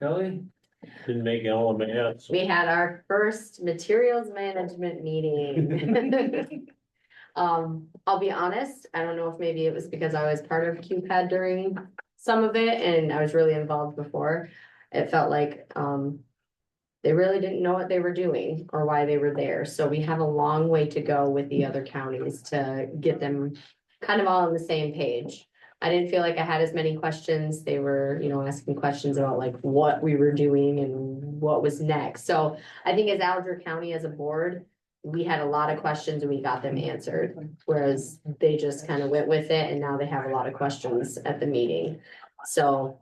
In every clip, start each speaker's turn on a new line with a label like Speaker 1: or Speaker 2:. Speaker 1: Kelly?
Speaker 2: Didn't make LMAS.
Speaker 3: We had our first materials management meeting. Um, I'll be honest, I don't know if maybe it was because I was part of QPAD during some of it and I was really involved before. It felt like, um, they really didn't know what they were doing or why they were there. So we have a long way to go with the other counties to get them kind of all on the same page. I didn't feel like I had as many questions. They were, you know, asking questions about like what we were doing and what was next. So I think as Alger County as a board, we had a lot of questions and we got them answered, whereas they just kind of went with it and now they have a lot of questions at the meeting. So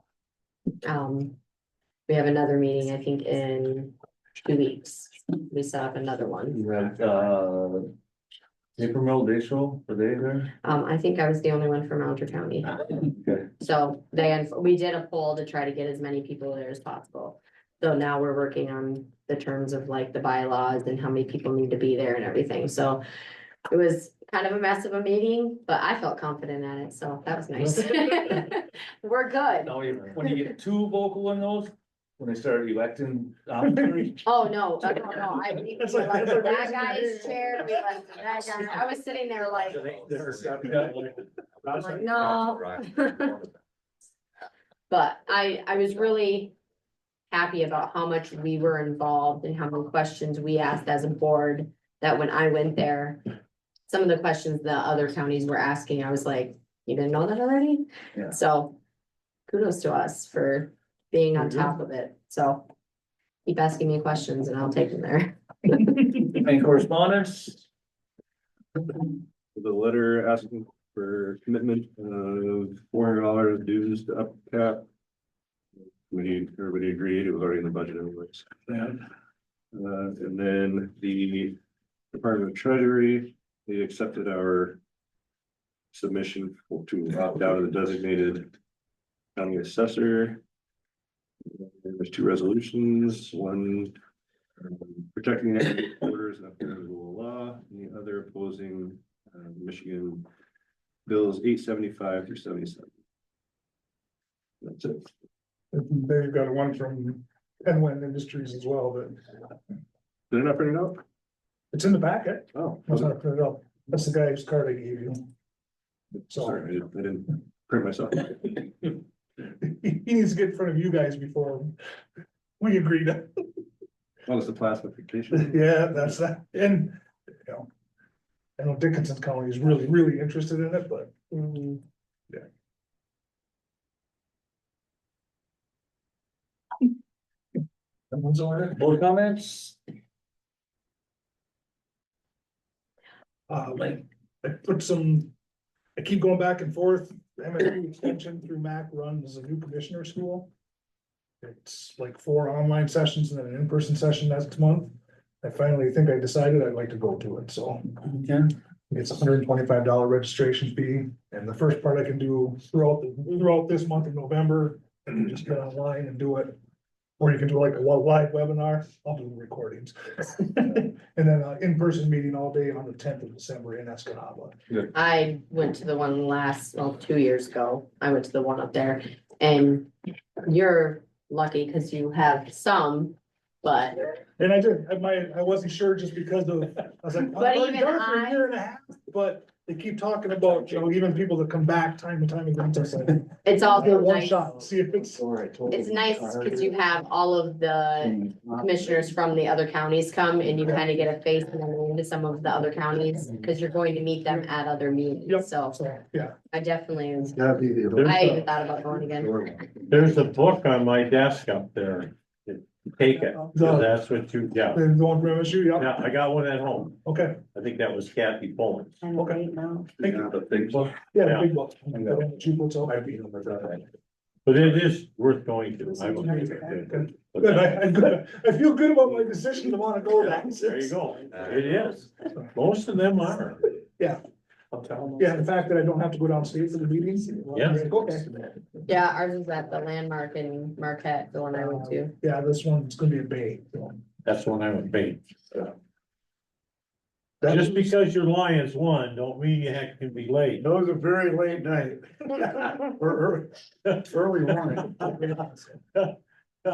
Speaker 3: um, we have another meeting, I think, in two weeks. We set up another one.
Speaker 1: You had, uh, paper mill, day show, were they there?
Speaker 3: Um, I think I was the only one from Alger County.
Speaker 1: Okay,
Speaker 3: So they, we did a poll to try to get as many people there as possible. So now we're working on the terms of like the bylaws and how many people need to be there and everything, so. It was kind of a mess of a meeting, but I felt confident at it, so that was nice. We're good.
Speaker 1: now you, when you get too vocal in those, when they start electing. officers,
Speaker 3: Oh, no, oh, no, no, I, we were like, that guy's chair, we like, that guy, I was sitting there like, I'm like, no. But I, I was really happy about how much we were involved and how many questions we asked as a board, that when I went there, some of the questions the other counties were asking, I was like, you didn't know that already?
Speaker 1: Yeah.
Speaker 3: So kudos to us for being on top of it, so keep asking me questions and I'll take them there.
Speaker 1: Any correspondence?
Speaker 4: the letter asking for commitment of four hundred dollars dues to up cap. We, everybody agreed, it was already in the budget anyways. Uh, and then the Department of Treasury, they accepted our submission for- to opt out of the designated county assessor. There's two resolutions, one um, protecting the borders and upholding the rule of law, and the other opposing uh, Michigan bills eight seventy-five through seventy-seven. That's it.
Speaker 5: They've got one from Penland Industries as well, but
Speaker 4: Did I not print it out?
Speaker 5: it's in the packet.
Speaker 4: Oh,
Speaker 5: Must not print it up. That's the guy's card I gave you. So
Speaker 4: sorry, I didn't- I didn't print myself.
Speaker 5: he he needs to get in front of you guys before we agree to,
Speaker 4: Oh, it's the classification.
Speaker 5: yeah, that's that. And, you know. I know Dickinson County is really, really interested in it, but
Speaker 3: Mhm.
Speaker 1: Someone's over there? Board comments?
Speaker 5: uh, like, I put some. I keep going back and forth, M and E extension through Mac runs a new commissioner school. It's like four online sessions and then an in-person session next month. I finally think I decided I'd like to go to it, so
Speaker 1: Okay.
Speaker 5: it's a hundred and twenty-five dollar registration fee. And the first part I can do throughout, the- throughout this month of November, and just get online and do it. Or you can do like a li- live webinar, I'll do recordings. And then an in-person meeting all day on the tenth of December in Escanaba.
Speaker 3: I went to the one last, well, two years ago, I went to the one up there, and you're lucky because you have some, but
Speaker 5: And I did, I might, I wasn't sure just because of, I was like.
Speaker 3: But
Speaker 5: I've already
Speaker 3: even
Speaker 5: done it for a
Speaker 3: I-
Speaker 5: Year and a half, but they keep talking about, you know, even people that come back time and time again, it's like.
Speaker 3: it's
Speaker 5: I'll do
Speaker 3: also
Speaker 5: one
Speaker 3: nice.
Speaker 5: shot, See if it's,
Speaker 3: It's nice because you have all of the commissioners from the other counties come and you kind of get a face and then into some of the other counties because you're going to meet them at other
Speaker 5: Yep.
Speaker 3: meetings. So
Speaker 5: so, yeah,
Speaker 3: I definitely,
Speaker 4: That'd be
Speaker 3: I even thought about going again.
Speaker 2: There's a book on my desk up there. Take it, 'cause that's what you got.
Speaker 5: they're going for MSU, yeah,
Speaker 2: Yeah, I got one at home.
Speaker 5: okay,
Speaker 2: I think that was Kathy Bowen.
Speaker 5: okay,
Speaker 4: Thank you. The big book.
Speaker 5: yeah, the
Speaker 2: Yeah.
Speaker 5: big book. The cheap hotel.
Speaker 2: But it is worth going to. I will be there.
Speaker 5: Good, I, I good- I feel good about my decision to wanna go that.
Speaker 2: There you go. It is. Most of them are.
Speaker 1: I'll tell them.
Speaker 5: Yeah, the fact that I don't have to go downstate for the meetings.
Speaker 2: Yeah.
Speaker 5: Okay,
Speaker 3: Yeah, ours is at the landmark in Marquette, the one I went to.
Speaker 5: yeah, this one's gonna be a bay. so.
Speaker 2: That's when I would be.
Speaker 5: That-
Speaker 2: Just because your Lions won, don't mean you heck can be late.
Speaker 5: That was a very late night. Or early, early morning.